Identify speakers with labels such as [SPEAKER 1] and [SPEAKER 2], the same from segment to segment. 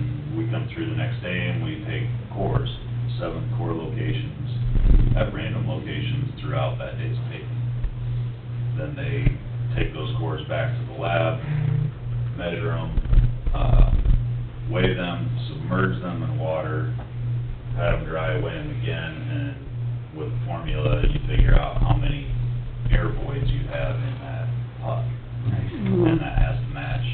[SPEAKER 1] and through the next day, and we take cores, seven core locations, at random locations throughout that day's paving. Then they take those cores back to the lab, measure them, uh, weigh them, submerge them in water, have them dry, weigh them again, and with a formula, you figure out how many air voids you have in that pot. And that has to match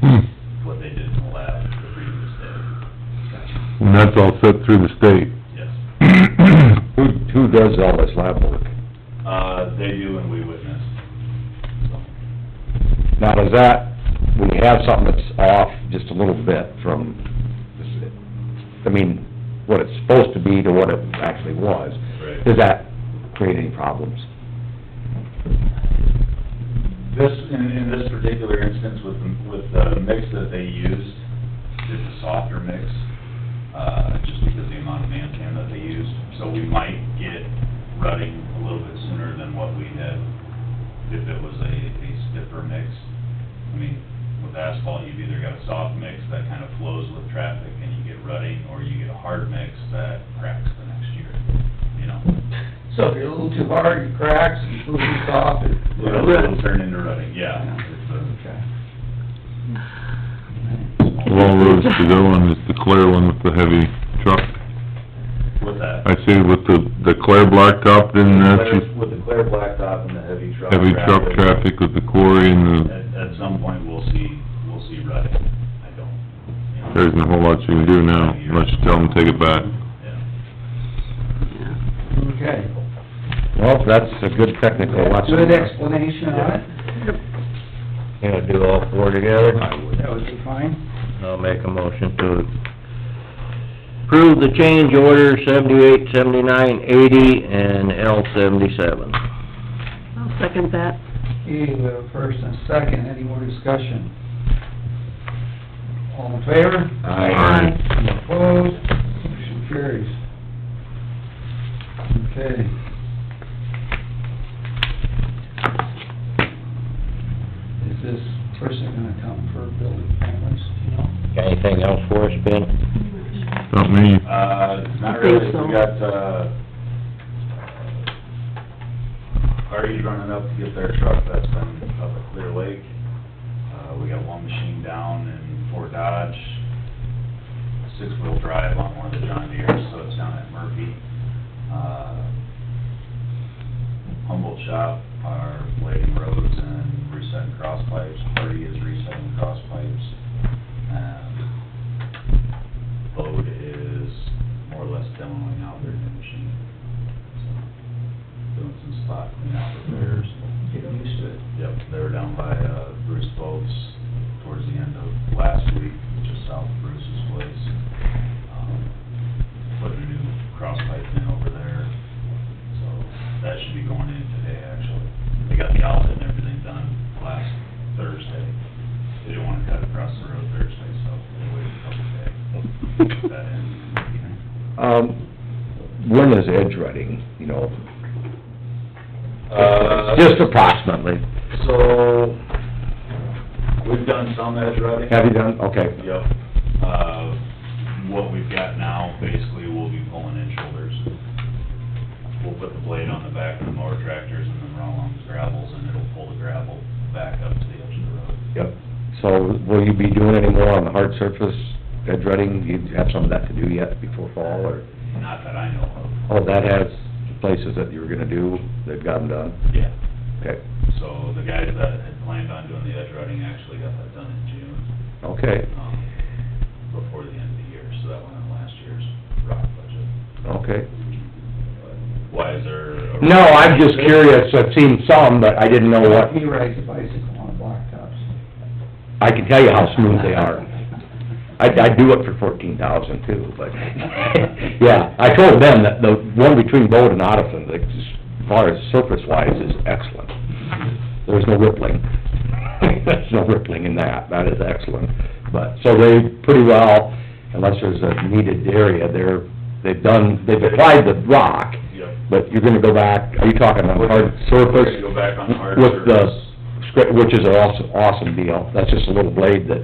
[SPEAKER 2] Hmm.
[SPEAKER 1] what they did in the lab the previous day.
[SPEAKER 2] And that's all set through the state.
[SPEAKER 1] Yes.
[SPEAKER 3] Who, who does all this lab work?
[SPEAKER 1] Uh, they do and we witness. So,
[SPEAKER 3] Now, does that, when you have something that's off just a little bit from, I mean, what it's supposed to be to what it actually was,
[SPEAKER 1] Right.
[SPEAKER 3] does that create any problems?
[SPEAKER 1] This, in, in this particular instance with, the- with the mix that they used, it's a softer mix, uh, just because the amount of man can that they used. So we might get rutting a little bit sooner than what we had if it was a, a stiffer mix. I mean, with asphalt, you've either got a soft mix that kind of flows with traffic and you get rutting, or you get a hard mix that cracks the next year, you know?
[SPEAKER 4] So if you're a little too hard, it cracks, and a little too soft, it...
[SPEAKER 1] It'll it'll turn into rutting, yeah. It's a-
[SPEAKER 4] Okay.
[SPEAKER 2] Well, Rose, the other one is the Claire one with the heavy truck.
[SPEAKER 1] With that.
[SPEAKER 2] I see with the, the Claire blacktop, then Mm, that's
[SPEAKER 1] Claire-
[SPEAKER 2] just
[SPEAKER 1] With the clear blacktop and the heavy truck.
[SPEAKER 2] heavy truck traffic with the quarry and the,
[SPEAKER 1] At, at some point, we'll see, we'll see rutting. I don't. you know,
[SPEAKER 2] there isn't a whole lot you can do now, unless you tell them to take it back.
[SPEAKER 1] yeah.
[SPEAKER 4] Okay.
[SPEAKER 3] Well, that's a good technical lesson.
[SPEAKER 4] Good explanation on it,
[SPEAKER 3] Gonna do all four together?
[SPEAKER 4] that would be fine.
[SPEAKER 5] I'll make a motion to approve the change order seventy-eight, seventy-nine, eighty, and L seventy-seven.
[SPEAKER 6] I'll second that.
[SPEAKER 4] Okay, we have a first and a second, any more discussion? All in favor?
[SPEAKER 3] Aye.
[SPEAKER 4] Any Opposed? Motion carries. Okay. Is this person gonna come for building families, do you know?
[SPEAKER 5] Got anything else for us, Ben?
[SPEAKER 2] Not me.
[SPEAKER 1] Uh, not
[SPEAKER 6] I think
[SPEAKER 1] really,
[SPEAKER 6] so.
[SPEAKER 1] we got, uh, Artie's running up to get their truck that's been up at Clear Lake. Uh, we got one machine down in Fort Dodge, six-wheel drive on one of the John Deere's, so it's down at Murphy. Uh, Humboldt Shop are blading roads and resetting cross pipes, Hardy is resetting cross pipes. And Bode is more or less demoing out their new machine. So, Doing some spot cleanout repairs.
[SPEAKER 4] Getting used to it.
[SPEAKER 1] Yep, they were down by uh, Bruce Boats towards the end of last week, just south of Bruce's place. Um, Put a new cross pipe in over there, so that should be going in today, actually. They got the outlet and everything done last Thursday. They didn't want to cut across the road Thursday, so they waited a couple days. Put that in.
[SPEAKER 3] Um, when is edge running, you know?
[SPEAKER 1] Uh,
[SPEAKER 3] Just approximately.
[SPEAKER 1] So, we've done some edge routing.
[SPEAKER 3] Have you done, okay.
[SPEAKER 1] Yep. Uh, what we've got now, basically, we'll be pulling in shoulders. We'll put the blade on the back of the mower tractors and then run along the gravels, and it'll pull the gravel back up to the edge of the road.
[SPEAKER 3] Yep. So will you be doing any more on the hard surface, edge running? Do you have some of that to do yet before fall, or,
[SPEAKER 1] Not that I know of.
[SPEAKER 3] oh, that has places that you were gonna do, they've got them done?
[SPEAKER 1] Yeah.
[SPEAKER 3] Okay,
[SPEAKER 1] So the guys that had planned on doing the edge routing actually got that done in June,
[SPEAKER 3] okay,
[SPEAKER 1] um, before the end of the year, so that went on last year's rock budget.
[SPEAKER 3] okay.
[SPEAKER 1] But Why is there a...
[SPEAKER 3] No, I'm just curious, I've seen some, but I didn't know what,
[SPEAKER 4] He rides a bicycle on blacktops.
[SPEAKER 3] I can tell you how smooth they are. I'd, I'd do it for fourteen thousand too, but, yeah, I told them that the one between Bode and Odison, like, as far as surface wise, is excellent. There's no rippling. There's no rippling in that, that is excellent. But, so they pretty well, unless there's a needed area, they're, they've done, they've applied the rock,
[SPEAKER 1] Yep.
[SPEAKER 3] but you're gonna go back, are you talking on hard
[SPEAKER 1] We're gonna
[SPEAKER 3] surface?
[SPEAKER 1] go back on hard
[SPEAKER 3] With the
[SPEAKER 1] surface.
[SPEAKER 3] scra- which is an awesome, awesome deal. That's just a little blade that